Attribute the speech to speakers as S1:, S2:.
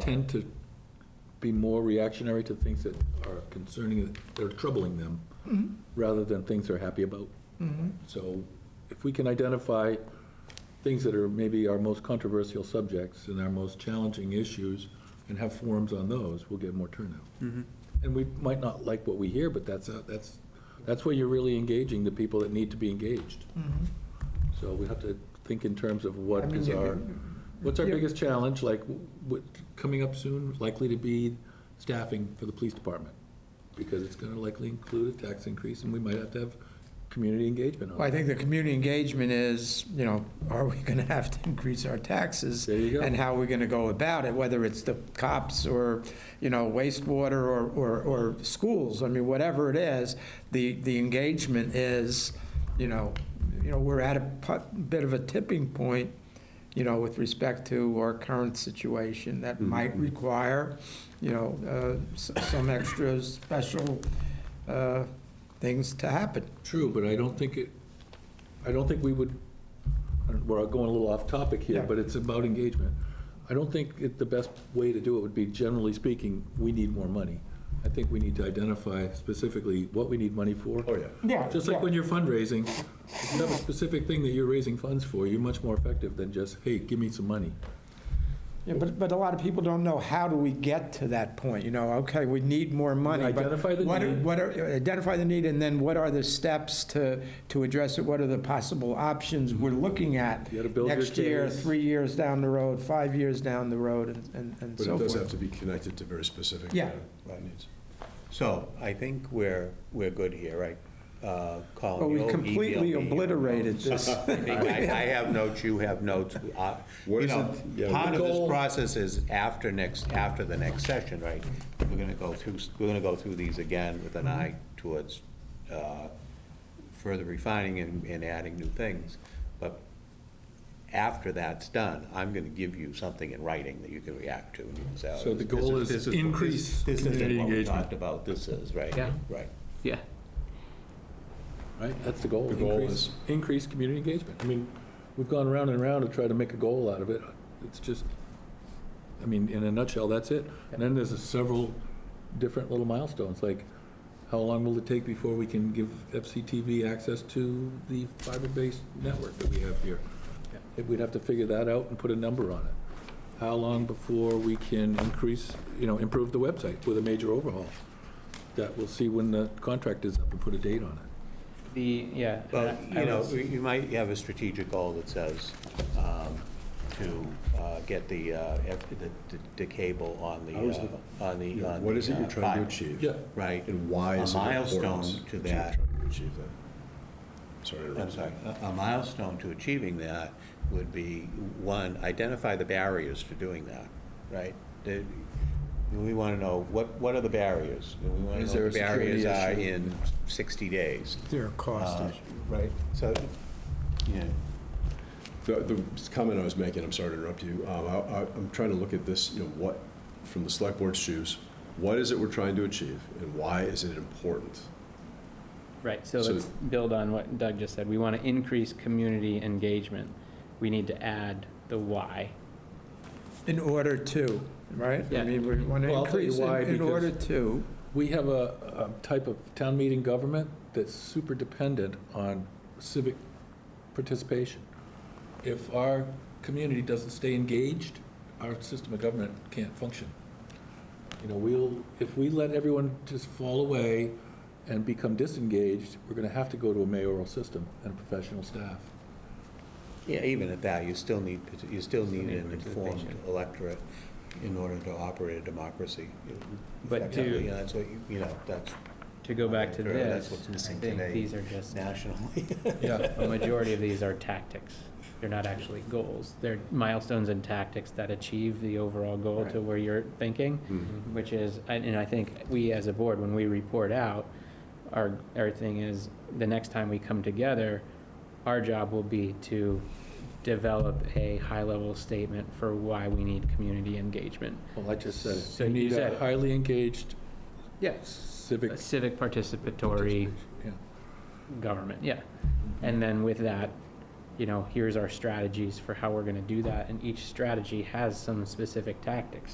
S1: tend to be more reactionary to things that are concerning, that are troubling them,
S2: 嗯
S1: rather than things they're happy about. So if we can identify things that are maybe our most controversial subjects and our most challenging issues, and have forums on those, we'll get more turnout. And we might not like what we hear, but that's, a- that's, that's where you're really engaging the people that need to be engaged.
S2: 嗯
S1: So we have to think in terms of
S2: I
S1: what
S2: mean,
S1: is
S2: you
S1: our, what's our
S2: yeah.
S1: biggest challenge, like, what, coming up soon, likely to be staffing for the police department? Because it's gonna likely include a tax increase, and we might have to have community engagement
S2: Well, I
S1: on it.
S2: think the community engagement is, you know, are we going to have to increase our taxes?
S1: There you go.
S2: And how are we going to go about it, whether it's the cops or, you know, wastewater or, or, or schools? I mean, whatever it is, the, the engagement is, you know, you know, we're at a pu- bit of a tipping point, you know, with respect to our current situation that
S1: Mm-hmm.
S2: might require, you know, uh, s- some extra special uh, things to happen.
S1: True, but I don't think it, I don't think we would, I don't- we're going a little off topic here,
S2: Yeah.
S1: but it's about engagement. I don't think it, the best way to do it would be, generally speaking, we need more money. I think we need to identify specifically what we need money for. Oh, yeah.
S2: Yeah,
S1: Just like when you're fundraising, if you have a specific thing that you're raising funds for, you're much more effective than just, hey, give me some money.
S2: Yeah, but, but a lot of people don't know, how do we get to that point? You know, okay, we need more money. but
S1: Identify the
S2: what are-
S1: need.
S2: What are, identify the need, and then what are the steps to, to address it? What are the possible options we're looking at?
S1: You gotta build your
S2: Next year,
S1: case.
S2: three years down the road, five years down the road, and- and, and
S3: But
S2: so
S3: it does have
S2: forth.
S3: to be connected to very specific.
S2: Yeah.
S3: uh, uh, needs.
S4: So I think we're, we're good here, right? Uh, Colin,
S2: But we
S4: you'll email
S2: completely
S4: me your
S2: obliterated
S4: notes.
S2: this.
S4: I think I I have notes, you have notes. uh,
S3: What
S4: You
S3: is
S4: know,
S3: it- yeah.
S4: part of
S1: Goal.
S4: this process is after next, after the next session, right? We're gonna go through, we're gonna go through these again with
S2: Mm-hmm.
S4: an eye towards uh, further refining and, and adding new things. But after that's done, I'm gonna give you something in writing that you can react to and you can say. oh,
S1: So the
S4: this- this
S1: goal is
S4: this this-
S1: increase
S4: This isn't
S1: community
S4: what we
S1: engagement.
S4: talked about, this is, right?
S5: Yeah.
S4: Right.
S5: Yeah.
S1: Right, that's the goal.
S3: The goal
S1: increase-
S3: is-
S1: Increase community engagement. I mean, we've gone round and round to try to make a goal out of it. It's just, I mean, in a nutshell, that's it. And then there's several different little milestones, like how long will it take before we can give FCTV access to the fiber-based network that we have here? If We'd have to figure that out and put a number on it. How long before we can increase, you know, improve the website with a major overhaul? That we'll see when the contract is up and put a date on it.
S5: The, yeah.
S4: Well,
S5: I- I
S4: you know,
S5: was-
S4: we- you might have a strategic goal that says um, to uh, get the, uh, F- the- the- the cable on
S3: How is it-
S4: the, uh, on the. on
S3: What
S4: the,
S3: is it you're trying
S4: uh,
S3: to
S4: fiber,
S3: achieve?
S1: Yeah.
S4: Right.
S3: And why
S4: A
S3: is it
S4: milestone
S3: important?
S4: to
S3: you're
S4: that.
S3: trying to Achieve that. Sorry to
S4: I'm
S3: interrupt.
S4: sorry, a- a milestone to achieving that would be, one, identify the barriers to doing that, right? The- We want to know, what, what are the barriers? We want to
S1: Is
S4: know
S1: there
S4: what
S1: a
S4: the barriers are
S1: security issue?
S4: in 60 days.
S2: There are cost
S4: Uh,
S2: issues.
S4: Right, so, yeah,
S3: The, the comment I was making, I'm sorry to interrupt you, um, I, I- I'm trying to look at this, you know, what, from the select board's shoes, what is it we're trying to achieve and why is it important?
S5: Right, so
S3: so-
S5: let's build on what Doug just said. We want to increase community engagement. We need to add the why.
S2: In order to, right? I
S5: Yeah.
S2: mean, we want to
S1: Well, I'll tell you
S2: increase in
S1: why,
S2: in
S1: because-
S2: order to.
S1: We have a, a type of town meeting government that's super dependent on civic participation. If our community doesn't stay engaged, our system of government can't function. You know, we'll, if we let everyone just fall away and become disengaged, we're gonna have to go to a mayoral system and professional staff.
S4: yeah, even at that, you still need, parti- you still need
S5: need
S4: an informed
S5: participation.
S4: electorate in order to operate a democracy.
S5: But to-
S4: effectively, And that's what, you you know, that's
S5: To go back to
S4: Sure, that's
S5: this,
S4: what's
S5: I
S4: missing
S5: think
S4: today.
S5: these are just,
S4: nationally.
S1: Yeah.
S5: a majority of these are tactics. They're not actually goals. They're milestones and tactics that achieve the overall goal to where you're thinking,
S4: Mm-hmm.
S5: which is, and and I think we as a board, when we report out, our, our thing is, the next time we come together, our job will be to develop a high-level statement for why we need community engagement.
S1: Well, I just said it.
S5: So
S1: You
S5: you
S1: need
S5: said
S1: a
S5: it.
S1: highly engaged
S5: Yes.
S1: civic.
S5: Civic participatory
S1: participation. Yeah.
S5: government, yeah. And then with that, you know, here's our strategies for how we're gonna do that, and each strategy has some specific tactics.